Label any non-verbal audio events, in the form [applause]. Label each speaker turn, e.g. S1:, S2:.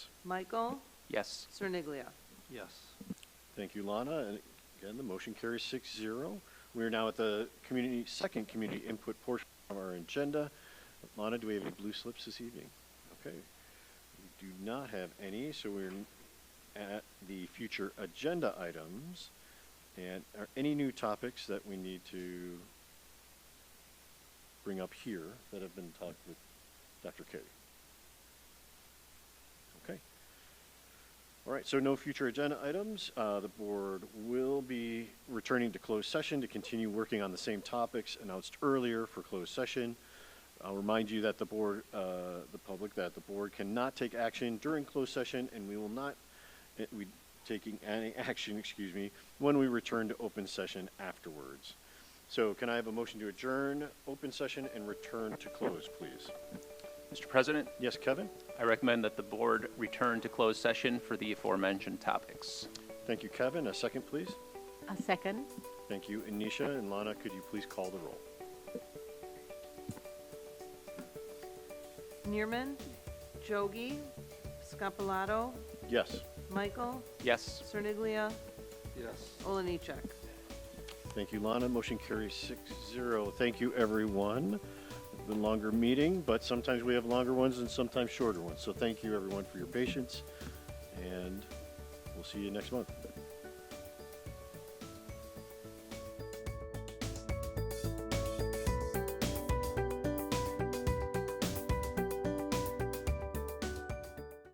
S1: Michael
S2: Yes.
S1: Cerniglia.
S3: Yes.
S4: Thank you, Lana. And again, the motion carries six zero. We are now at the community, second community input portion of our agenda. Lana, do we have any blue slips this evening? Okay. We do not have any, so we're at the future agenda items. And are any new topics that we need to bring up here that have been talked with Dr. Katie? Okay. All right, so no future agenda items. Uh, The board will be returning to closed session to continue working on the same topics announced earlier for closed session. I'll remind you that the board, uh, the public, that the board cannot take action during closed session, and we will not, eh, we taking any [laughs] action, excuse me, when we return to open session afterwards. So can I have a motion to adjourn open session and return to close, please?
S2: Mr. President,
S4: Yes, Kevin?
S2: I recommend that the board return to closed session for the aforementioned topics.
S4: Thank you, Kevin. A second, please.
S5: A second.
S4: Thank you. And Nisha and Lana, could you please call the roll?
S1: Neerman, Jogi, Scapalato,
S4: Yes,
S1: Michael
S2: Yes.
S1: Cerniglia,
S3: Yes.
S1: Oliniechek.
S4: thank you, Lana. Motion carries six zero. Thank you, everyone. The longer meeting, but sometimes we have longer ones and sometimes shorter ones. So thank you, everyone, for your patience, and we'll see you next month.